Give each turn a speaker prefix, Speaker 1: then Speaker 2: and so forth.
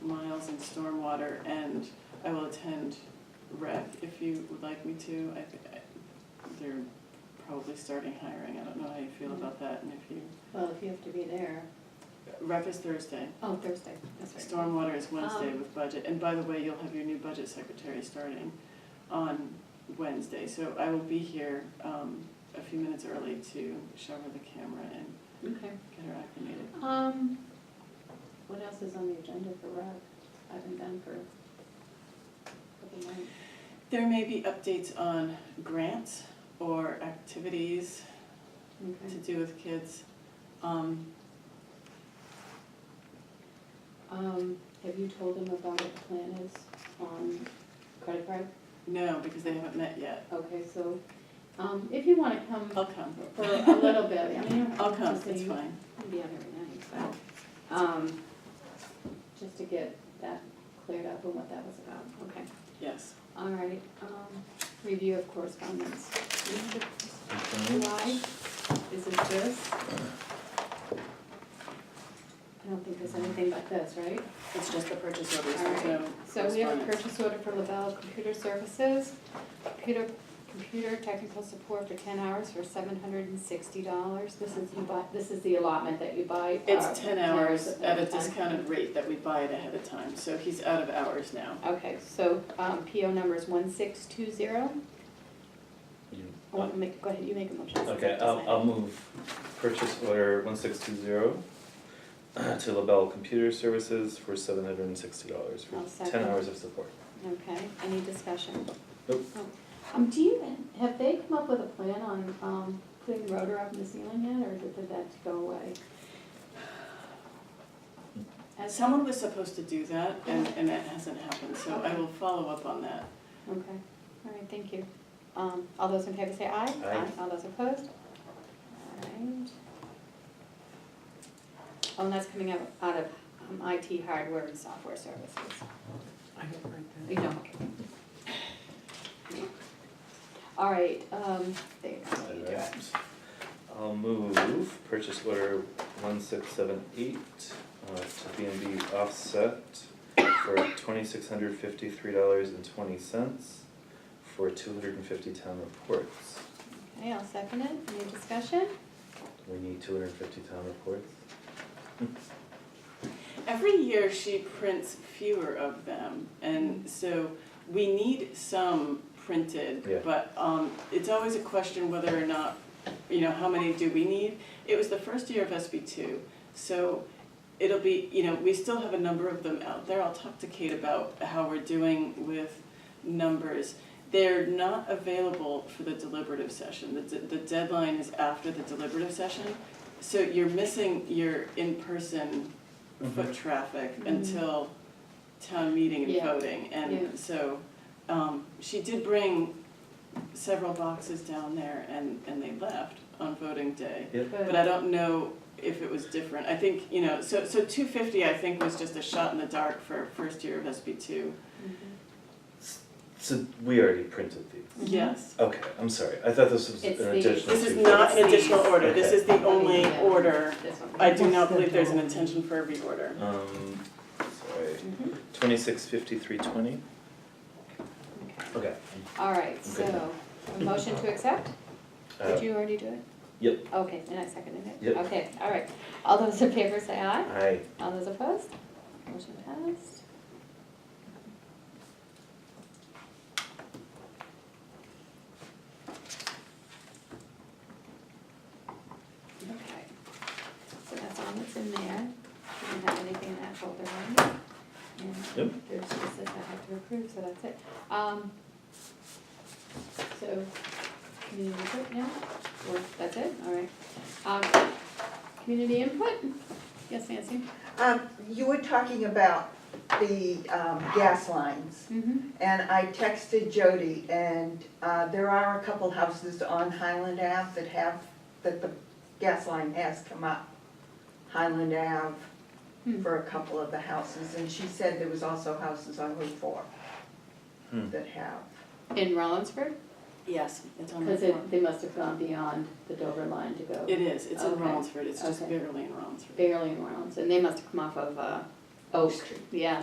Speaker 1: Miles and Stormwater, and I will attend rec if you would like me to. I think I- they're probably starting hiring, I don't know how you feel about that, and if you,
Speaker 2: Well, if you have to be there,
Speaker 1: rec is Thursday.
Speaker 2: oh, Thursday, that's right.
Speaker 1: Stormwater is Wednesday
Speaker 2: Um,
Speaker 1: with budget, and by the way, you'll have your new budget secretary starting on Wednesday, so I will be here um, a few minutes early to show her the camera and
Speaker 2: Okay.
Speaker 1: get her acclimated.
Speaker 2: Um, what else is on the agenda for rec? I haven't done for a couple months.
Speaker 1: There may be updates on grants or activities to
Speaker 2: Okay.
Speaker 1: do with kids. Um,
Speaker 2: Um, have you told them about what the plan is on credit card?
Speaker 1: No, because they haven't met yet.
Speaker 2: Okay, so, um, if you wanna come
Speaker 1: I'll come.
Speaker 2: for a little bit, I mean, you don't
Speaker 1: I'll
Speaker 2: have
Speaker 1: come,
Speaker 2: to say
Speaker 1: it's
Speaker 2: you
Speaker 1: fine.
Speaker 2: can be on every night, but, um, just to get that cleared up and what that was about, okay.
Speaker 1: Yes.
Speaker 2: All right, um, review of correspondence. July,
Speaker 3: Mm-hmm. Correspondence?
Speaker 2: is it this? I don't think there's anything but this, right?
Speaker 1: It's just the purchase orders,
Speaker 2: All right.
Speaker 1: so.
Speaker 2: So we have a
Speaker 1: correspondence.
Speaker 2: purchase order for LaBelle Computer Services, computer, computer technical support for ten hours for seven hundred and sixty dollars. This is, you buy, this is the allotment that you buy. uh,
Speaker 1: It's ten hours at a
Speaker 2: time.
Speaker 1: discounted rate that we buy it ahead of time, so he's out of hours now.
Speaker 2: Okay, so, um, PO number is one six two zero.
Speaker 3: You-
Speaker 2: I want to make, go ahead, you make a motion.
Speaker 3: Okay, I'll, I'll move purchase order one six two zero to LaBelle Computer Services for seven hundred and sixty dollars
Speaker 2: I'll
Speaker 3: for
Speaker 2: second.
Speaker 3: ten hours of support.
Speaker 2: Okay, any discussion?
Speaker 3: Nope.
Speaker 2: Um, do you, have they come up with a plan on, um, putting the rotor up in the ceiling yet, or did that go away? Has-
Speaker 1: Someone was supposed to do that, and, and that hasn't happened, so I will follow up on that.
Speaker 2: Okay, all right, thank you. Um, all those in favor say aye.
Speaker 3: Aye.
Speaker 2: All those opposed? All right. Oh, and that's coming out, out of um, IT hardware and software services.
Speaker 1: I don't write
Speaker 2: You don't. All right, um, there you go, you do it.
Speaker 3: I'll move purchase order one six seven eight uh, to B and B Offset for twenty-six hundred fifty-three dollars and twenty cents for two hundred and fifty town reports.
Speaker 2: Okay, I'll second it. Any discussion?
Speaker 3: We need two hundred and fifty town reports.
Speaker 1: Every year she prints fewer of them, and so we need some printed,
Speaker 3: Yeah.
Speaker 1: but um, it's always a question whether or not, you know, how many do we need? It was the first year of SB two, so it'll be, you know, we still have a number of them out there. I'll talk to Kate about how we're doing with numbers. They're not available for the deliberative session. The, de- the deadline is after the deliberative session, so you're missing your in-person
Speaker 3: Mm-hmm.
Speaker 1: foot traffic
Speaker 2: Mhm.
Speaker 1: until town meeting and
Speaker 2: Yeah.
Speaker 1: voting.
Speaker 2: Yeah.
Speaker 1: And so, um, she did bring several boxes down there and, and they left on voting day. But I don't know if it was different. I think, you know, so, so two fifty, I think, was just a shot in the dark for first year of SB two.
Speaker 2: Mm-hmm.
Speaker 3: So we already printed these.
Speaker 2: Mhm.
Speaker 1: Yes.
Speaker 3: Okay, I'm sorry. I thought this was an
Speaker 2: It's the-
Speaker 3: additional.
Speaker 1: This is
Speaker 3: two.
Speaker 1: not an additional order. This is the only
Speaker 2: Okay.
Speaker 1: order.
Speaker 2: Mm-hmm. This one.
Speaker 1: I do not believe there's an intention for a reorder.
Speaker 3: Um, sorry,
Speaker 2: Mhm.
Speaker 3: twenty-six fifty-three twenty?
Speaker 2: Okay.
Speaker 3: Okay.
Speaker 2: All right,
Speaker 3: Okay.
Speaker 2: so, a motion to accept?
Speaker 3: Uh,
Speaker 2: Did you already do it?
Speaker 3: Yep,
Speaker 2: Okay, and I seconded it?
Speaker 3: Yep.
Speaker 2: Okay, all right. All those in favor say aye.
Speaker 3: I,
Speaker 2: All those opposed? Motion passed. Okay, so that's all that's in there. We don't have anything in that folder, right? And
Speaker 3: Yep.
Speaker 2: There's just that I have to approve, so that's it. Um, so, community input now, or that's it, all right. Um, community input? Yes, Nancy?
Speaker 4: Um, you were talking about the, um, gas lines,
Speaker 2: Mm-hmm.
Speaker 4: and I texted Jody, and, uh, there are a couple houses on Highland Ave that have, that the gas line has come up. Highland Ave
Speaker 2: Hmm.
Speaker 4: for a couple of the houses, and she said there was also houses on Route Four
Speaker 3: Hmm.
Speaker 4: that have.
Speaker 2: In Rollinsford?
Speaker 1: Yes, it's on the
Speaker 2: Because it,
Speaker 1: form.
Speaker 2: they must have gone beyond the Dover line to go
Speaker 1: It is. It's in
Speaker 2: Okay.
Speaker 1: Rollinsford. It's just
Speaker 2: Okay.
Speaker 1: barely in Rollinsford.
Speaker 2: barely in Rollins, and they must have come off of, uh, Oak.
Speaker 4: Street.
Speaker 2: Yeah,